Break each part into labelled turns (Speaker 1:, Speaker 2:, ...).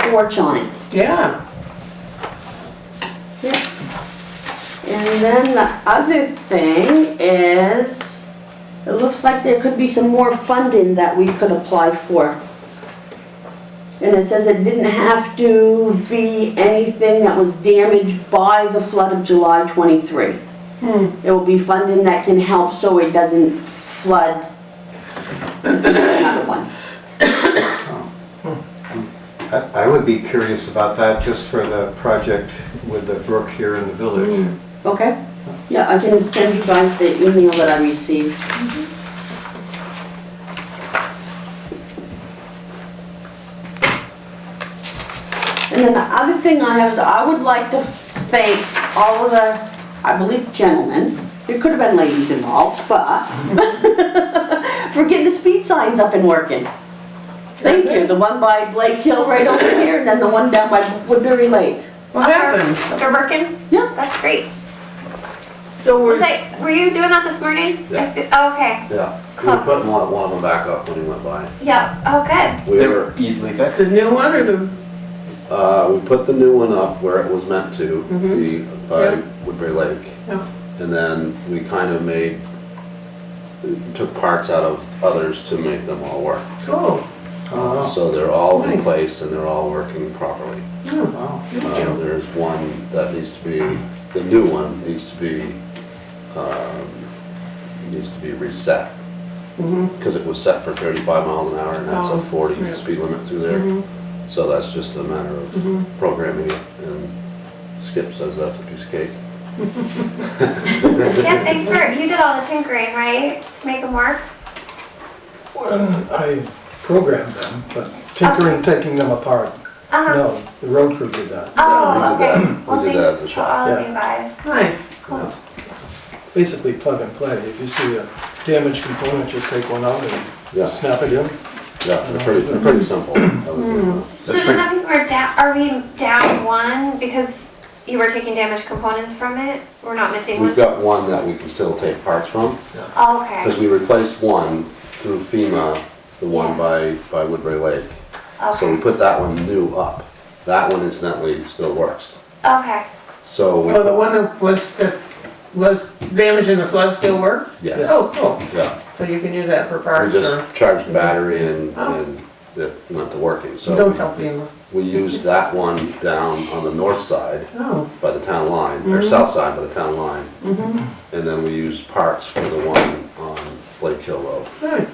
Speaker 1: porch on it.
Speaker 2: Yeah,
Speaker 1: Yep. And then the other thing is, it looks like there could be some more funding that we could apply for. And it says it didn't have to be anything that was damaged by the flood of July twenty-three.
Speaker 2: Hmm.
Speaker 1: It will be funding that can help so it doesn't flood another one.
Speaker 3: I I would be curious about that, just for the project with the brook here in the village.
Speaker 1: Okay, yeah, I can send you guys the email that I received. Mm-hmm. And then the other thing I have is I would like to thank all of the, I believe gentlemen, there could have been ladies involved, but for getting the speed signs up and working. Thank you, the one by Blake Hill right over here, and then the one down by Woodbury Lake.
Speaker 2: what happened?
Speaker 4: They're working?
Speaker 1: Yeah.
Speaker 4: That's great.
Speaker 2: So
Speaker 4: Was
Speaker 2: we're,
Speaker 4: I, were you doing that this morning?
Speaker 5: Yes.
Speaker 4: Oh, okay.
Speaker 5: Yeah, we were putting one, one of them back up when he went by.
Speaker 4: Yeah. Oh, good.
Speaker 5: We were,
Speaker 3: easily fixed.
Speaker 2: the new one or the,
Speaker 5: uh, we put the new one up where it was meant to, be by Woodbury Lake.
Speaker 2: Mm-hmm. Yeah.
Speaker 5: And then we kind of made, took parts out of others to make them all work.
Speaker 2: oh,
Speaker 3: Oh,
Speaker 5: So they're all in
Speaker 2: Nice.
Speaker 5: place and they're all working properly.
Speaker 3: wow.
Speaker 5: Uh, There's one that needs to be, the new one needs to be, um, needs to be reset.
Speaker 2: Mhm.
Speaker 5: Because it was set for thirty-five miles an hour and that's
Speaker 2: Oh,
Speaker 5: a forty
Speaker 2: yeah. Mm-hmm.
Speaker 5: speed limit through there. So that's just a matter
Speaker 2: Mhm.
Speaker 5: of programming it and Skip says that's a piece of cake.
Speaker 4: Skip, thanks for, you did all the tinkering, right? To make them work?
Speaker 6: Well, I programmed them, but tinkering, taking them apart,
Speaker 4: Uh-huh.
Speaker 6: no, the road crew did that.
Speaker 4: Oh,
Speaker 5: Yeah, we did
Speaker 4: okay.
Speaker 5: that. We
Speaker 4: Well,
Speaker 5: did that at the
Speaker 4: thanks to
Speaker 5: shop.
Speaker 4: all of
Speaker 6: Yeah.
Speaker 4: you guys.
Speaker 2: nice.
Speaker 4: Cool.
Speaker 6: Basically plug and play, if you see a damaged component, just take one out
Speaker 5: Yeah.
Speaker 6: and snap it in.
Speaker 5: Yeah, they're pretty, they're pretty simple. That was good enough.
Speaker 4: So does that mean we're down, are we down one because you were taking damaged components from it? We're not missing one?
Speaker 5: We've got one that we can still take parts from.
Speaker 4: Oh, okay.
Speaker 5: Because we replaced one through FEMA, the one by, by Woodbury Lake. So we
Speaker 4: Okay.
Speaker 5: put that one new up. That one incidentally still works.
Speaker 4: Okay.
Speaker 5: So, we
Speaker 2: Well, Oh, the
Speaker 5: put-
Speaker 2: one that was, that was damaged in the flood still work?
Speaker 5: yes,
Speaker 2: Oh, cool,
Speaker 5: yeah.
Speaker 2: so you can use that for
Speaker 5: We
Speaker 2: parts or,
Speaker 5: just charged the battery and,
Speaker 2: Oh.
Speaker 5: and it went to working.
Speaker 2: don't
Speaker 5: So
Speaker 2: tell FEMA.
Speaker 5: we used that one down on the north side
Speaker 2: Oh,
Speaker 5: by the town line,
Speaker 2: Mm-hmm.
Speaker 5: or south side by the town line. And then we used parts for the one on Lake Hill Road.
Speaker 2: good,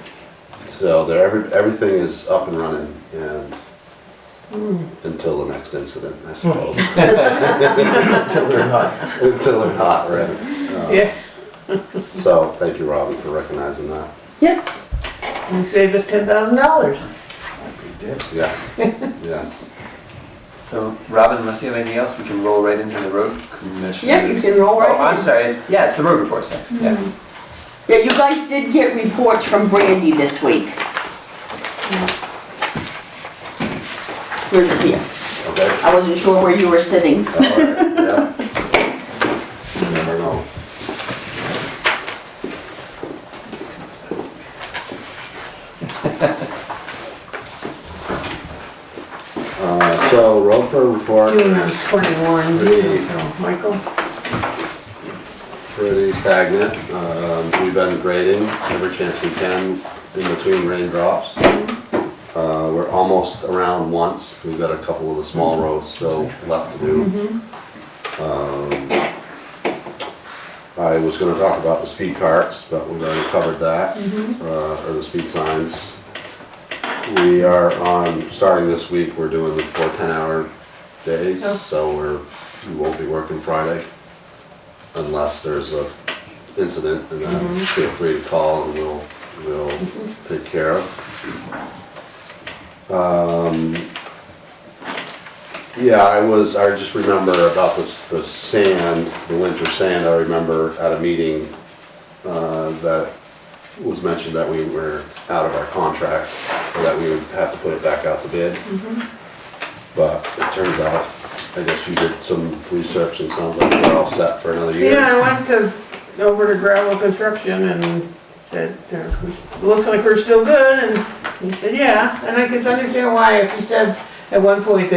Speaker 5: So there, every, everything is up and running and
Speaker 2: Mm.
Speaker 5: until the next incident, I suppose.
Speaker 6: Hmm. Until they're not.
Speaker 5: Until they're not, right?
Speaker 2: yeah,
Speaker 5: So thank you, Robin, for recognizing that.
Speaker 1: Yep,
Speaker 2: you saved us ten thousand dollars.
Speaker 5: Yeah, yes.
Speaker 7: So, Robin, unless you have anything else, we can roll right into the road commission.
Speaker 1: yep, you can Mm-hmm. roll right
Speaker 7: Oh,
Speaker 1: in.
Speaker 7: I'm sorry, it's, yeah, it's the road reports next, yeah.
Speaker 1: Yeah, you guys did get reports from Brandy this week. Where's your here?
Speaker 5: Okay.
Speaker 1: I wasn't sure where you were sitting.
Speaker 5: All right, yeah. You never know. Uh, So road pro report
Speaker 2: June of
Speaker 5: is
Speaker 2: twenty-one,
Speaker 5: Really?
Speaker 2: so, Michael?
Speaker 5: pretty stagnant. Um, We've been grading every chance we can in between raindrops. Uh, We're almost around once. We've got a couple of the small roads still left to do. Um, I was gonna talk about the speed carts, but we've already covered that, uh, or the speed signs. We are on, starting this week, we're doing the four ten-hour days,
Speaker 2: Oh.
Speaker 5: so we're, we won't be working Friday unless there's a incident, and then feel free to call and we'll, we'll take care of. Um, yeah, I was, I just remember about this, the sand, the winter sand, I remember at a meeting, uh, that was mentioned that we were out of our contract, or that we would have to put it back out to bid. But it turns out, I guess you did some research and sounds like we're all set for another year.
Speaker 2: Yeah, I went to, over to gravel construction and said, uh, we- looks like we're still good, and he said, yeah, and I could understand why if you said at one point that